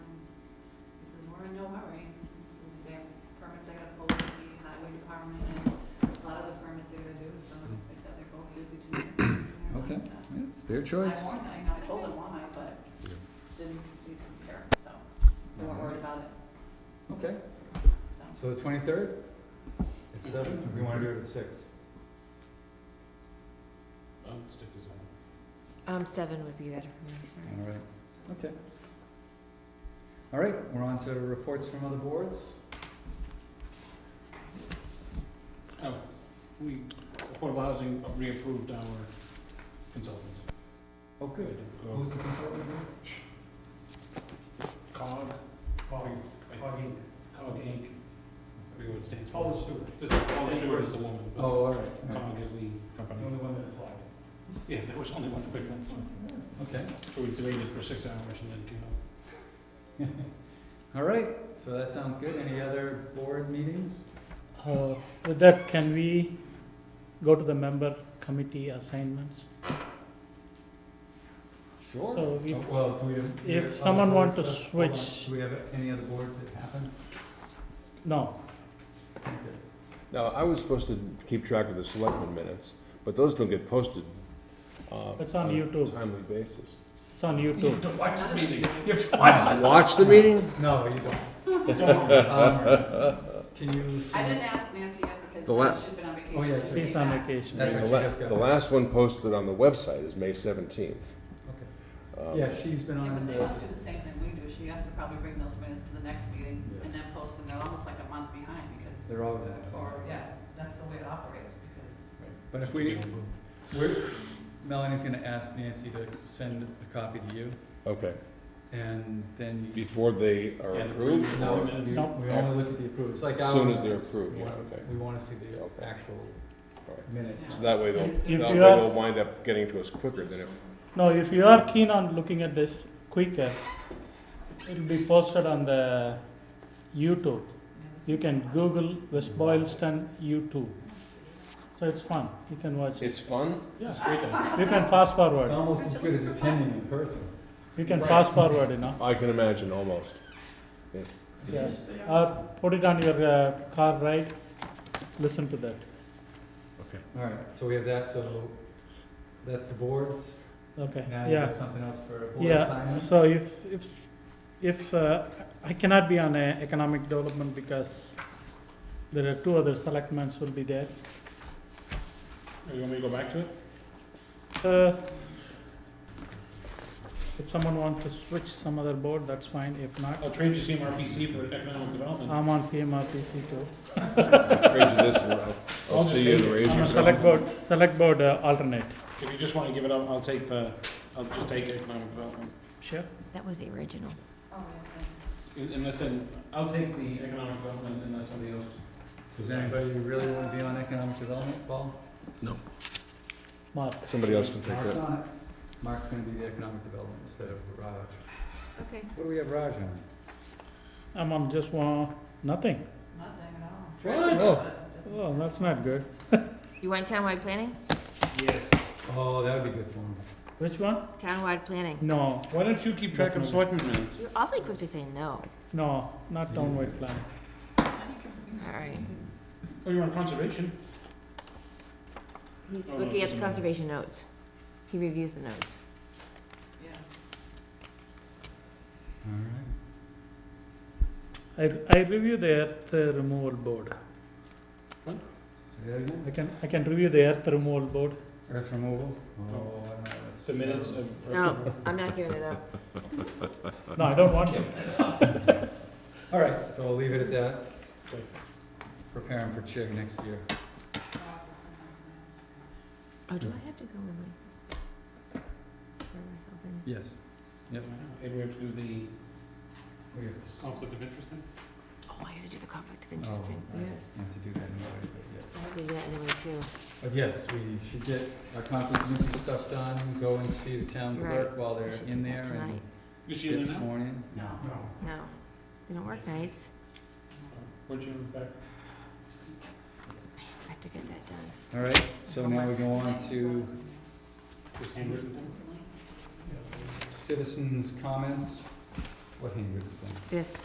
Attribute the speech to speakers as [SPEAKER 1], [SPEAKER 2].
[SPEAKER 1] their
[SPEAKER 2] uh, I
[SPEAKER 1] choice.
[SPEAKER 2] warned him, I told him why, but
[SPEAKER 3] Yeah.
[SPEAKER 2] didn't, we didn't care, so we
[SPEAKER 4] Mm-hmm.
[SPEAKER 2] weren't worried about it,
[SPEAKER 1] Okay,
[SPEAKER 2] so.
[SPEAKER 4] So the twenty-third? At seven, we wanna do it at six.
[SPEAKER 3] I'll stick to seven.
[SPEAKER 5] Um, seven would be better for me, sorry.
[SPEAKER 4] All right, okay. All right, we're on to reports from other boards.
[SPEAKER 3] Oh, we, affordable housing reapproved our consultants.
[SPEAKER 4] Oh, good. Who's the consultant?
[SPEAKER 3] COG,
[SPEAKER 6] Cog,
[SPEAKER 3] COG
[SPEAKER 6] cog ink.
[SPEAKER 3] Inc. I forget what it stands for.
[SPEAKER 6] Paula Stewart,
[SPEAKER 3] It's just, Paula Stewart is the woman,
[SPEAKER 4] Oh,
[SPEAKER 3] but
[SPEAKER 4] all right, all right,
[SPEAKER 3] COG is the
[SPEAKER 6] the
[SPEAKER 3] company.
[SPEAKER 6] only one that applied.
[SPEAKER 3] Yeah, there was only one big one.
[SPEAKER 4] okay.
[SPEAKER 3] So we debated for six hours and then came up.
[SPEAKER 4] All right, so that sounds good. Any other board meetings?
[SPEAKER 6] Uh, with that, can we go to the member committee assignments?
[SPEAKER 4] Sure.
[SPEAKER 6] So we,
[SPEAKER 4] Oh, Well, do we have? do we
[SPEAKER 6] if
[SPEAKER 4] have other
[SPEAKER 6] someone
[SPEAKER 4] boards
[SPEAKER 6] want to
[SPEAKER 4] that- hold on.
[SPEAKER 6] switch-
[SPEAKER 4] Do we have any other boards that happen?
[SPEAKER 6] no,
[SPEAKER 4] Okay.
[SPEAKER 7] Now, I was supposed to keep track of the selectmen minutes, but those don't get posted. uh,
[SPEAKER 6] It's on
[SPEAKER 7] a
[SPEAKER 6] YouTube.
[SPEAKER 7] Timely basis.
[SPEAKER 6] it's on YouTube.
[SPEAKER 3] Don't watch the meeting. You have to
[SPEAKER 7] Watch the meeting?
[SPEAKER 4] No, you don't.
[SPEAKER 3] Don't.
[SPEAKER 4] Um, Can
[SPEAKER 2] I
[SPEAKER 4] you?
[SPEAKER 2] didn't
[SPEAKER 4] send-
[SPEAKER 2] ask Nancy yet
[SPEAKER 7] The
[SPEAKER 2] because
[SPEAKER 7] la-
[SPEAKER 2] she's been on vacation.
[SPEAKER 4] Oh, yeah,
[SPEAKER 2] She
[SPEAKER 4] sure.
[SPEAKER 2] came
[SPEAKER 6] He's on
[SPEAKER 2] back.
[SPEAKER 6] vacation.
[SPEAKER 4] That's
[SPEAKER 7] The
[SPEAKER 4] right, she
[SPEAKER 7] la-
[SPEAKER 4] just got
[SPEAKER 7] The
[SPEAKER 4] back.
[SPEAKER 7] last one posted on the website is May seventeenth.
[SPEAKER 4] Yeah, she's been
[SPEAKER 2] Yeah,
[SPEAKER 4] on
[SPEAKER 2] but they
[SPEAKER 4] the,
[SPEAKER 2] must do the same thing we do, she has to probably bring those minutes to the next meeting and
[SPEAKER 4] Yes.
[SPEAKER 2] then post them, they're almost like a month behind because.
[SPEAKER 4] they're always active.
[SPEAKER 2] Or, yeah, that's the way it operates because.
[SPEAKER 4] But if we, we're, Melanie's gonna ask Nancy to send a copy to you,
[SPEAKER 7] Okay,
[SPEAKER 4] and then you.
[SPEAKER 7] before they are
[SPEAKER 3] Yeah,
[SPEAKER 7] approved?
[SPEAKER 3] approved.
[SPEAKER 7] or-
[SPEAKER 3] No,
[SPEAKER 4] We we
[SPEAKER 6] No.
[SPEAKER 4] only look at the approved, it's like
[SPEAKER 7] As
[SPEAKER 4] our.
[SPEAKER 7] soon as they're
[SPEAKER 4] minutes.
[SPEAKER 7] approved,
[SPEAKER 4] We
[SPEAKER 7] yeah,
[SPEAKER 4] wanna-
[SPEAKER 7] okay.
[SPEAKER 4] We wanna see the
[SPEAKER 7] Okay.
[SPEAKER 4] actual
[SPEAKER 7] Alright.
[SPEAKER 4] minutes.
[SPEAKER 7] So that way they'll,
[SPEAKER 6] If- if
[SPEAKER 7] that way
[SPEAKER 6] you are-
[SPEAKER 7] they'll wind up getting to us quicker than if,
[SPEAKER 6] No, if you are keen on looking at this quicker, it'll be posted on the YouTube. You can
[SPEAKER 2] Oh,
[SPEAKER 6] Google West Boylston YouTube. So it's fun, you can watch it.
[SPEAKER 7] it's fun?
[SPEAKER 6] Yeah,
[SPEAKER 3] It's great time.
[SPEAKER 6] you can fast
[SPEAKER 4] It's
[SPEAKER 6] forward,
[SPEAKER 4] almost as good as attending in person.
[SPEAKER 6] you can
[SPEAKER 3] Right.
[SPEAKER 6] fast forward, you know.
[SPEAKER 7] I can imagine, almost. Yeah.
[SPEAKER 6] Yes. Or put it on your uh, car ride, listen to that.
[SPEAKER 4] Alright, so we have that, so that's the boards,
[SPEAKER 6] Okay,
[SPEAKER 4] now you
[SPEAKER 6] yeah.
[SPEAKER 4] have something else for board
[SPEAKER 6] Yeah,
[SPEAKER 4] assignments?
[SPEAKER 6] so if, if, if, uh, I cannot be on uh, economic development because there are two other selectments will be there.
[SPEAKER 3] You want me to go back to it?
[SPEAKER 6] Uh, If someone wants to switch some other board, that's fine, if not,
[SPEAKER 3] I'll trade you CMRPC for economic development.
[SPEAKER 6] I'm on CMRPC too.
[SPEAKER 7] I'll trade you this and I'll- I'll
[SPEAKER 3] I'll just
[SPEAKER 7] see you
[SPEAKER 3] take
[SPEAKER 7] and
[SPEAKER 3] it.
[SPEAKER 7] raise
[SPEAKER 3] I'm
[SPEAKER 6] I'm
[SPEAKER 3] a
[SPEAKER 6] a
[SPEAKER 7] your.
[SPEAKER 6] select board, select board uh, alternate.
[SPEAKER 3] If you just want to give it up, I'll take the, I'll just take economic development.
[SPEAKER 6] Sure.
[SPEAKER 5] That was the original.
[SPEAKER 2] Oh, yeah, thanks.
[SPEAKER 3] Un- Unless, in- I'll take the economic development unless somebody else.
[SPEAKER 4] Does anybody really wanna be on economic development, Paul?
[SPEAKER 6] Mark,
[SPEAKER 7] Somebody else can take
[SPEAKER 4] Mark's
[SPEAKER 7] that.
[SPEAKER 4] on it. Mark's gonna be the economic development instead of Raj.
[SPEAKER 5] Okay.
[SPEAKER 4] What do we have Raj on?
[SPEAKER 6] I'm on just one, nothing.
[SPEAKER 2] Nothing at all.
[SPEAKER 3] What?
[SPEAKER 2] But it doesn't-
[SPEAKER 6] Oh, that's not good.
[SPEAKER 5] You want townwide planning?
[SPEAKER 3] Yes.
[SPEAKER 4] Oh, that would be good for him.
[SPEAKER 6] Which one?
[SPEAKER 5] Townwide planning.
[SPEAKER 6] No,
[SPEAKER 3] Why don't you keep track of selectmen minutes?
[SPEAKER 5] You're awfully quick to say no.
[SPEAKER 6] no, not downward plan.
[SPEAKER 5] All right.
[SPEAKER 3] Oh, you're on conservation.
[SPEAKER 5] He's
[SPEAKER 3] Oh, no,
[SPEAKER 5] looking at
[SPEAKER 3] just a
[SPEAKER 5] the
[SPEAKER 3] minute.
[SPEAKER 5] conservation notes. He reviews the notes.
[SPEAKER 2] Yeah.
[SPEAKER 4] All right.
[SPEAKER 6] I, I review the earth removal board.
[SPEAKER 4] Say that again?
[SPEAKER 6] I can, I can review the earth removal board.
[SPEAKER 4] Earth removal?
[SPEAKER 3] Oh,
[SPEAKER 4] I don't know. That's
[SPEAKER 3] The minutes of.
[SPEAKER 5] No, I'm not giving it up.
[SPEAKER 6] No, I don't want to.
[SPEAKER 4] All right, so I'll leave it at that. Prepare him for Chig next year.
[SPEAKER 5] Oh, do I have to go and like swear myself in?
[SPEAKER 4] Yes. Yep.
[SPEAKER 3] Maybe we have to do the
[SPEAKER 4] We have to-
[SPEAKER 3] conflict of interest thing?
[SPEAKER 5] Oh, I gotta do the conflict of
[SPEAKER 4] oh,
[SPEAKER 5] interest thing.
[SPEAKER 4] I
[SPEAKER 5] Yes.
[SPEAKER 4] Have to do that anyway, but yes.
[SPEAKER 5] I'll do that anyway too.
[SPEAKER 4] But yes, we should get our conflict of interest stuff done, go and see the town clerk while
[SPEAKER 5] I
[SPEAKER 4] they're
[SPEAKER 5] should do
[SPEAKER 4] in there
[SPEAKER 5] that tonight.
[SPEAKER 4] and
[SPEAKER 3] Is she in
[SPEAKER 4] get
[SPEAKER 3] there now?
[SPEAKER 4] sworn in.
[SPEAKER 2] No.
[SPEAKER 5] No, they don't work nights.
[SPEAKER 3] Where'd you back?
[SPEAKER 5] I have to get that done.
[SPEAKER 4] All right, so now we go on
[SPEAKER 2] Thanks.
[SPEAKER 4] to
[SPEAKER 3] This handwritten thing?
[SPEAKER 4] citizens' comments. What handwritten thing?
[SPEAKER 5] This,